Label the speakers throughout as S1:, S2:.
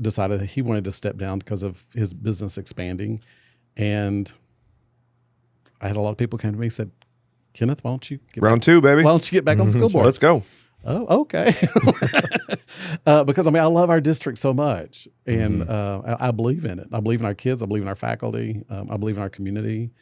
S1: decided that he wanted to step down because of his business expanding. And I had a lot of people come to me and said, Kenneth, why don't you get
S2: Round two, baby.
S1: why don't you get back on the school board?
S2: Let's go.
S1: Oh, okay. uh, because I mean, I love our district so much, and
S2: Mm-hmm.
S1: uh, I, I believe in it. I believe in our kids. I believe in our faculty. Um, I believe in our community,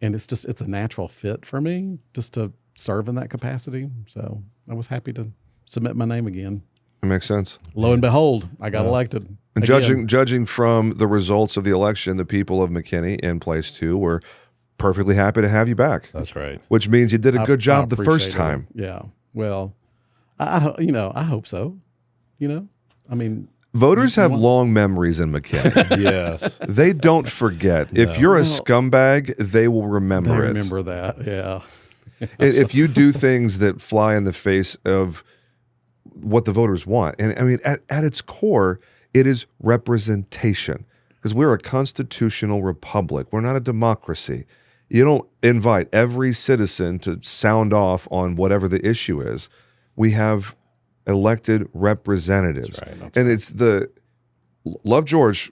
S1: and it's just it's a natural fit for me just to serve in that capacity. So I was happy to submit my name again.
S2: It makes sense.
S1: Lo and behold, I got elected.
S2: And
S1: again.
S2: judging judging from the results of the election, the people of McKinney in place two were perfectly happy to have you back,
S3: That's right.
S2: which means you did a
S1: I-
S2: good
S1: I
S2: job the first
S1: appreciate it.
S2: time.
S1: Yeah. Well, I I ho- you know I hope so. You know, I mean,
S2: Voters have long memories in McKinney.
S3: Yes.
S2: they don't forget. If you're a scumbag, they will remember
S1: I
S2: it.
S1: remember that. Yeah.
S2: I- if you do things that fly in the face of what the voters want, and I mean, at, at its core, it is representation because we're a constitutional republic. We're not a democracy. You don't invite every citizen to sound off on whatever the issue is. We have elected representatives,
S3: That's right. That's
S2: and it's the love George.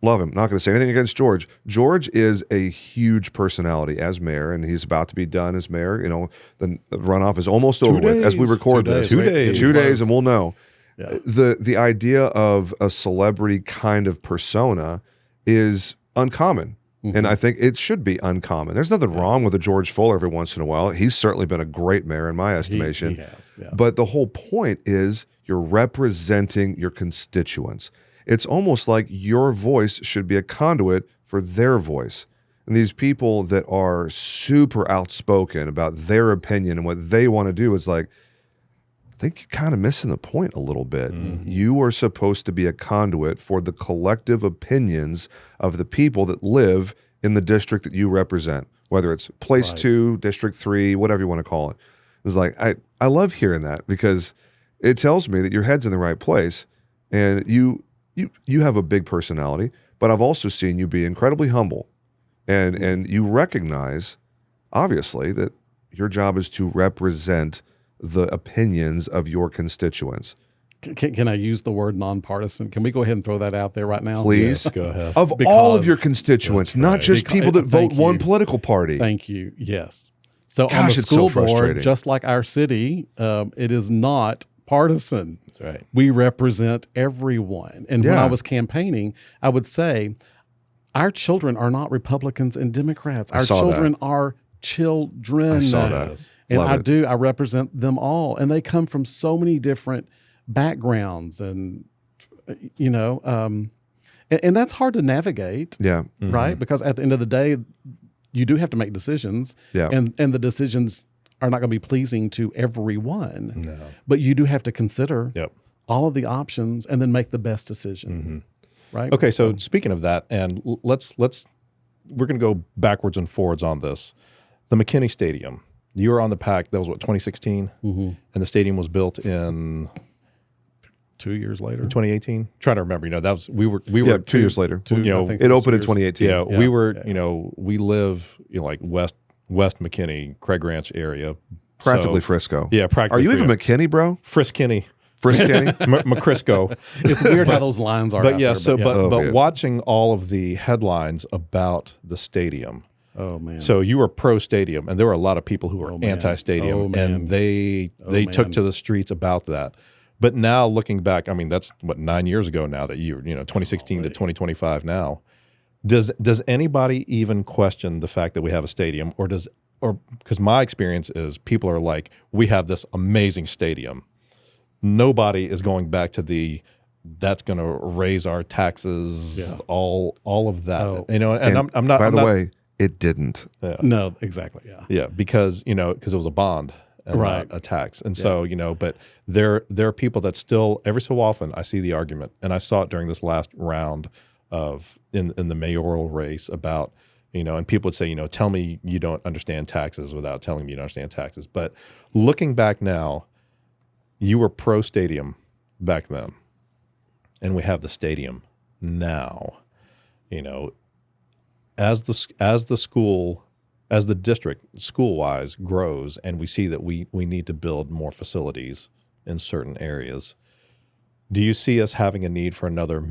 S2: Love him. Not going to say anything against George. George is a huge personality as mayor, and he's about to be done as mayor. You know, the the runoff is almost over with as we
S3: days.
S2: record
S3: Two
S2: this.
S3: days. Two days.
S2: Two days,
S1: Close.
S2: and we'll know.
S1: Yeah.
S2: The the idea of a celebrity kind of persona is uncommon.
S1: Mm-hmm.
S2: And I think it should be uncommon. There's nothing wrong with a George Fuller every once in a while. He's certainly been a great mayor in my
S1: He- he
S2: estimation.
S1: has, yeah.
S2: But the whole point is you're representing your constituents. It's almost like your voice should be a conduit for their voice. And these people that are super outspoken about their opinion and what they want to do, it's like, I think you're kind of missing the point a little bit. You are supposed to be a conduit for the collective opinions of the people that live in the district that you represent, whether it's place two, district three, whatever you want to call it. It's like I, I love hearing that because it tells me that your head's in the right place and you you you have a big personality, but I've also seen you be incredibly humble and
S1: Mm-hmm.
S2: and you recognize obviously that your job is to represent the opinions of your constituents.
S1: C- Can, can I use the word nonpartisan? Can we go ahead and throw that out there right now?
S2: Please. Oh.
S3: Go ahead.
S2: Of all of
S1: Because-
S2: your constituents,
S3: That's
S2: not
S3: right.
S2: just
S1: Beca-
S2: people that vote
S1: eh, thank
S2: one
S1: you.
S2: political party.
S1: Thank you. Yes. So
S2: Gosh,
S1: on the
S2: it's so
S1: school board,
S2: frustrating.
S1: just like our city, um, it is not partisan.
S3: That's right.
S1: We represent everyone. And when
S2: Yeah.
S1: I was campaigning, I would say, our children are not Republicans and Democrats. Our
S2: saw that.
S1: children are children.
S2: I saw that.
S1: And
S2: Love
S1: I
S2: it.
S1: do. I represent them all, and they come from so many different backgrounds, and you know, um, and, and that's hard to navigate,
S2: Yeah.
S3: Mm-hmm.
S1: right? Because at the end of the day, you do have to make decisions,
S2: Yeah.
S1: and and the decisions are not going to be pleasing to everyone,
S2: Mm.
S3: No.
S1: but you do have to consider
S3: Yep.
S1: all of the options and then make the best decision, right?
S3: Mm-hmm. Okay, so speaking of that, and l- let's let's we're going to go backwards and forwards on this. The McKinney Stadium. You were on the pack. That was what 2016,
S1: Mhm.
S3: and the stadium was built in
S1: Two years later,
S3: 2018. Trying to remember. You know, that was we were we
S2: Yeah.
S3: were
S2: Two, years later.
S1: two-
S3: you know,
S1: I think
S2: It
S1: was
S2: opened in
S1: two years-
S2: 2018.
S3: Yeah, we
S1: Yeah,
S3: were. You know, we live you know, like West West McKinney, Craig Ranch area.
S2: Practically
S3: So-
S2: Frisco.
S3: yeah, practically.
S2: Are you even
S3: free.
S2: McKinney, bro?
S3: Friskinney,
S2: Friskinney?
S3: M- McCrisco?
S1: It's weird how those lines are.
S3: but
S1: out
S3: yeah,
S1: there,
S3: so but
S2: Oh,
S3: but
S2: yeah.
S3: watching all of the headlines about the stadium.
S1: oh man,
S3: So you were pro stadium, and there were a lot of people who were
S1: man.
S3: anti-stadium,
S1: Oh, man. Oh,
S3: and they they took
S1: man.
S3: to the streets about that. But now looking back, I mean that's what nine years ago now that you you know 2016 to 2025 now. Does does anybody even question the fact that we have a stadium, or does or because my experience is people are like we have this amazing stadium. Nobody is going back to the that's going to raise our taxes,
S1: Yeah.
S3: all all of that.
S1: Oh.
S3: You know, and, I'm, I'm not.
S2: By
S3: I'm
S2: the
S3: not-
S2: way, it didn't.
S1: no, exactly, yeah.
S3: yeah, because you know, because it was a bond, and
S1: Right.
S3: not A tax, and so you know, but there there are people that still every so often I see the argument, and I saw it during this last round of in in the mayoral race about you know, and people would say you know, tell me you don't understand taxes without telling me you don't understand taxes. But looking back now, you were pro stadium back then, and we have the stadium now. You know, as the as the school as the district school wise grows and we see that we we need to build more facilities in certain areas do you see us having a need for another